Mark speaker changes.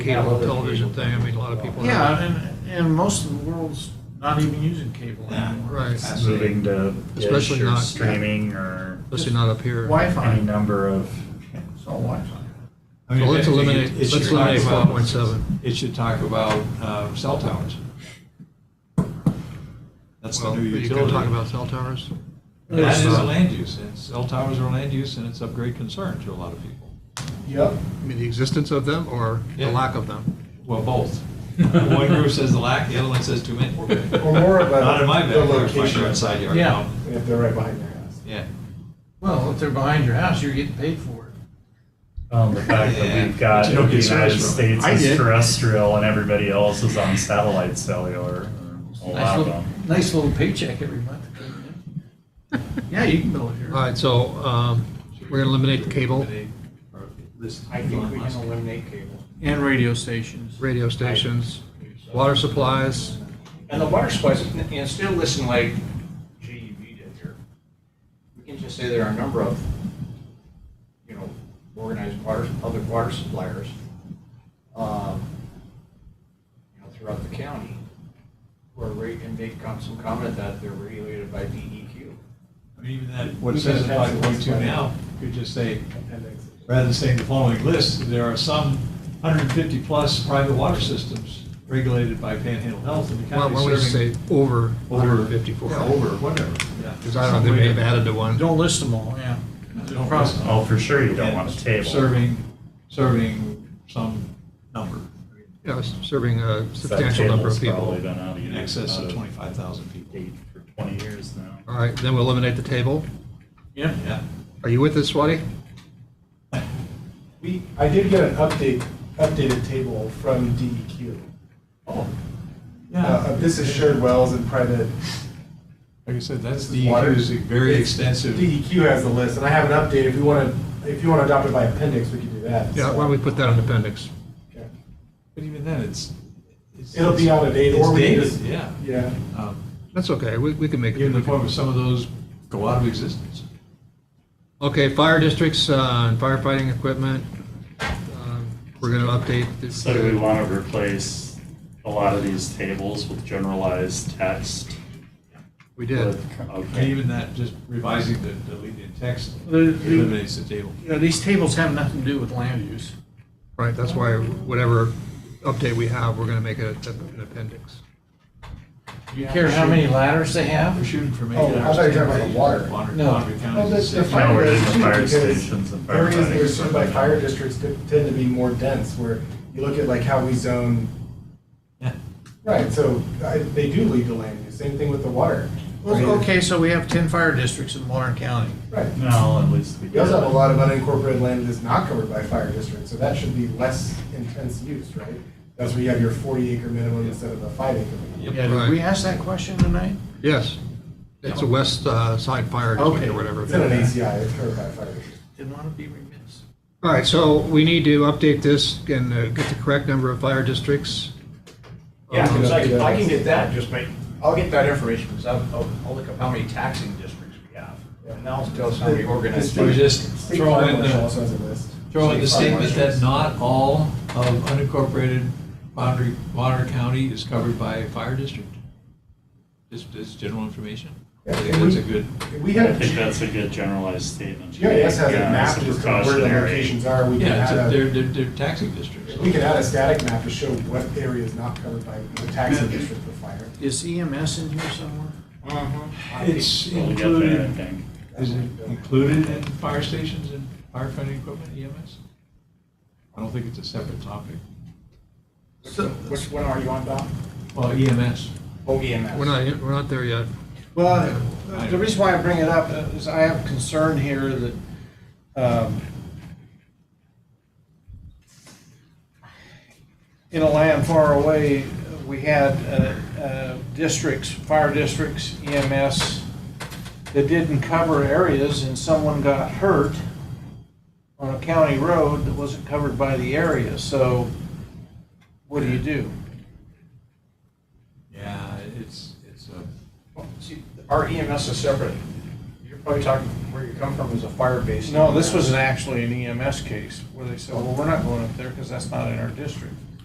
Speaker 1: cable
Speaker 2: Yeah.
Speaker 1: television thing, I mean, a lot of people. have-
Speaker 3: Yeah, and, and most of the world's not even using cable anymore.
Speaker 1: Right.
Speaker 3: It's
Speaker 2: Moving to dish
Speaker 1: Especially
Speaker 2: or
Speaker 1: not-
Speaker 2: streaming or
Speaker 1: Especially not up here.
Speaker 2: any
Speaker 3: Wi-Fi,
Speaker 2: number of,
Speaker 3: it's all Wi-Fi.
Speaker 4: I
Speaker 1: So
Speaker 4: mean,
Speaker 1: let's
Speaker 4: it- it-
Speaker 1: eliminate,
Speaker 4: it
Speaker 1: let's
Speaker 4: should talk
Speaker 1: eliminate
Speaker 4: about-
Speaker 1: 4.7.
Speaker 4: It should talk about uh, cell towers. That's the
Speaker 1: Well,
Speaker 4: new
Speaker 1: you
Speaker 4: utility.
Speaker 1: can talk about cell towers.
Speaker 4: That is
Speaker 1: Uh,
Speaker 4: a land use, and cell towers are land use, and it's of great concern to a lot of people.
Speaker 3: Yep.
Speaker 1: I mean, the existence of them or the
Speaker 4: Yeah.
Speaker 1: lack of them?
Speaker 4: Well, both. One group says the lack, the other one says too many.
Speaker 5: Or more of a-
Speaker 4: Not in my
Speaker 5: the
Speaker 4: backyard, if I
Speaker 5: location.
Speaker 4: go outside yard.
Speaker 3: Yeah.
Speaker 5: If they're right behind their house.
Speaker 4: Yeah.
Speaker 3: Well, if they're behind your house, you're getting paid for it.
Speaker 2: um, the fact
Speaker 4: Yeah,
Speaker 2: that we've
Speaker 4: but
Speaker 2: got
Speaker 4: you don't
Speaker 2: the
Speaker 4: get
Speaker 2: United
Speaker 4: service from it.
Speaker 2: States
Speaker 3: I
Speaker 2: is
Speaker 3: did.
Speaker 2: terrestrial and everybody else is on satellite cellular. A
Speaker 3: Nice
Speaker 2: lot of
Speaker 3: little,
Speaker 2: them.
Speaker 3: nice little paycheck every month. that came in. Yeah, you can build it
Speaker 1: All
Speaker 3: here.
Speaker 1: right, so um, we're going to eliminate the cable,
Speaker 5: I think we can eliminate cable.
Speaker 3: And radio stations.
Speaker 1: radio stations, water supplies.
Speaker 5: And the water supplies, and and still listen like JUV did here. We can just say there are a number of, you know, organized water, public water suppliers, um, you know, throughout the county, who are, re- and they got some comment that they're regulated by E DEQ.
Speaker 4: I mean, even that, what it says in five point two now, you could just say,
Speaker 5: Appendix.
Speaker 4: rather than saying the following list, there are some hundred and fifty plus private water systems regulated by Panhandle Health in the
Speaker 1: Why
Speaker 4: county
Speaker 1: don't we just say
Speaker 4: serving.
Speaker 1: over
Speaker 4: over
Speaker 1: 154?
Speaker 4: Yeah, over, whatever, yeah.
Speaker 1: Because I don't know, they may have added to one.
Speaker 3: Don't list them all, yeah. There's a problem.
Speaker 2: Oh, for sure you don't
Speaker 4: And
Speaker 2: want a table.
Speaker 4: Serving, serving some number,
Speaker 1: Yeah, s- serving a
Speaker 2: That
Speaker 1: substantial number of
Speaker 2: table's Probably
Speaker 1: people.
Speaker 2: been out of
Speaker 4: in
Speaker 2: use,
Speaker 4: excess
Speaker 2: out
Speaker 4: of twenty-five thousand people.
Speaker 2: date for twenty years now.
Speaker 1: All right, then we'll eliminate the table.
Speaker 3: Yeah.
Speaker 4: Yeah.
Speaker 1: Are you with us, Swati?
Speaker 5: We,
Speaker 6: I did get an update, updated table from DEQ.
Speaker 4: Oh.
Speaker 6: Uh, This is shared wells and private.
Speaker 4: Like I said, that's
Speaker 6: this is water.
Speaker 4: DEQ's very
Speaker 6: It's-
Speaker 4: extensive.
Speaker 6: DEQ has the list, and I have an update, if you want to, if you want to adopt it by appendix, we can do that.
Speaker 1: Yeah, why don't we put that in appendix?
Speaker 6: Okay.
Speaker 4: But even then, it's. it's-
Speaker 6: It'll be out of date,
Speaker 4: It's
Speaker 6: or we can
Speaker 4: dated,
Speaker 6: just-
Speaker 4: yeah.
Speaker 6: Yeah.
Speaker 4: Um,
Speaker 1: That's okay, we we can make
Speaker 4: Even the
Speaker 1: it.
Speaker 4: point where some of those go out of existence.
Speaker 1: Okay, fire districts uh, and firefighting equipment. Um, We're going to update. the-
Speaker 2: So do we want to replace a lot of these tables with generalized text?
Speaker 1: We did.
Speaker 2: With-
Speaker 4: And
Speaker 2: Okay.
Speaker 4: even that, just revising the deleted text
Speaker 3: The- the-
Speaker 4: eliminates the table.
Speaker 3: You know, these tables have nothing to do with land use.
Speaker 1: Right, that's why whatever update we have, we're going to make it a- an appendix.
Speaker 3: Do you care how many ladders they
Speaker 4: We're
Speaker 3: have?
Speaker 4: shooting for
Speaker 6: Oh,
Speaker 4: making
Speaker 6: I
Speaker 4: ours.
Speaker 6: thought you were talking about the
Speaker 4: 10 pages.
Speaker 6: water.
Speaker 4: Bonner-
Speaker 3: No.
Speaker 4: Bonner County
Speaker 6: Well,
Speaker 4: is
Speaker 6: the-
Speaker 4: the
Speaker 6: the
Speaker 4: same.
Speaker 6: fire
Speaker 2: No, we're in
Speaker 6: district,
Speaker 2: the fire
Speaker 6: because
Speaker 2: stations and
Speaker 6: Areas that
Speaker 2: firefighting
Speaker 6: are served by
Speaker 2: equipment.
Speaker 6: fire districts t- tend to be more dense, where you look at like how we zone,
Speaker 4: Yeah.
Speaker 6: right, so I- they do lead to land use, same thing with the water.
Speaker 3: Well,
Speaker 6: Right.
Speaker 3: Okay, so we have 10 fire districts in Warren County.
Speaker 6: Right.
Speaker 2: No, at least we
Speaker 6: We also have a
Speaker 2: did.
Speaker 6: lot of unincorporated land that's not covered by fire district, so that should be less intense use, right? That's where you have your forty acre minimum instead of the five acre minimum.
Speaker 4: Yep.
Speaker 3: Yeah, did we ask that question tonight?
Speaker 1: Yes, it's a west uh, side fire district
Speaker 3: Okay.
Speaker 1: or whatever.
Speaker 6: It's in an ACI, it's covered by fire district.
Speaker 3: Didn't want to be remiss.
Speaker 1: All right, so we need to update this and uh, get the correct number of fire districts.
Speaker 5: Yeah,
Speaker 1: Um,
Speaker 5: 'cause I can, I can get that, just make, I'll get that information, because I'll, I'll- I'll look up how many taxing districts we have. And that'll tell us how many organized.
Speaker 4: Or just
Speaker 6: State
Speaker 4: throw
Speaker 6: fire
Speaker 4: in the-
Speaker 6: marshal also has a list.
Speaker 4: Throw in the
Speaker 6: State fire
Speaker 4: statement that
Speaker 6: marshals.
Speaker 4: not all of unincorporated boundary, Bonner County is covered by a fire district? Just, just general information? I think that's a good,
Speaker 6: We
Speaker 2: I
Speaker 6: have,
Speaker 2: think that's a good generalized statement.
Speaker 6: GIS has a
Speaker 2: Yeah,
Speaker 6: map
Speaker 2: it's a
Speaker 6: just of where the
Speaker 2: precautionary.
Speaker 6: locations are, we can
Speaker 4: yeah, it's a-
Speaker 6: add
Speaker 4: they're,
Speaker 6: a,
Speaker 4: they're, they're taxing districts.
Speaker 6: we can add a static map to show what area is not covered by the taxing district for fire.
Speaker 3: Is EMS in here somewhere?
Speaker 4: It's
Speaker 2: We'll get there, I
Speaker 4: included,
Speaker 2: think.
Speaker 4: is it included in fire stations and firefighting equipment E EMS? I don't think it's a separate topic.
Speaker 5: Which one are you on, Bob?
Speaker 4: Well, E EMS,
Speaker 5: Oh, EMS.
Speaker 1: We're not, we're not there yet.
Speaker 3: Well, the reason why I bring it up is I have concern here that, um, in a land far away, we had uh, uh, districts, fire districts, EMS, that didn't cover areas and someone got hurt on a county road that wasn't covered by the area, so what do you do?
Speaker 4: yeah, it's, it's a,
Speaker 5: See, Our EMS is separate. You're probably talking, where you come from is a fire base.
Speaker 3: E No, this was an- actually an EMS case where they said, well, we're not going up there because that's not in our district.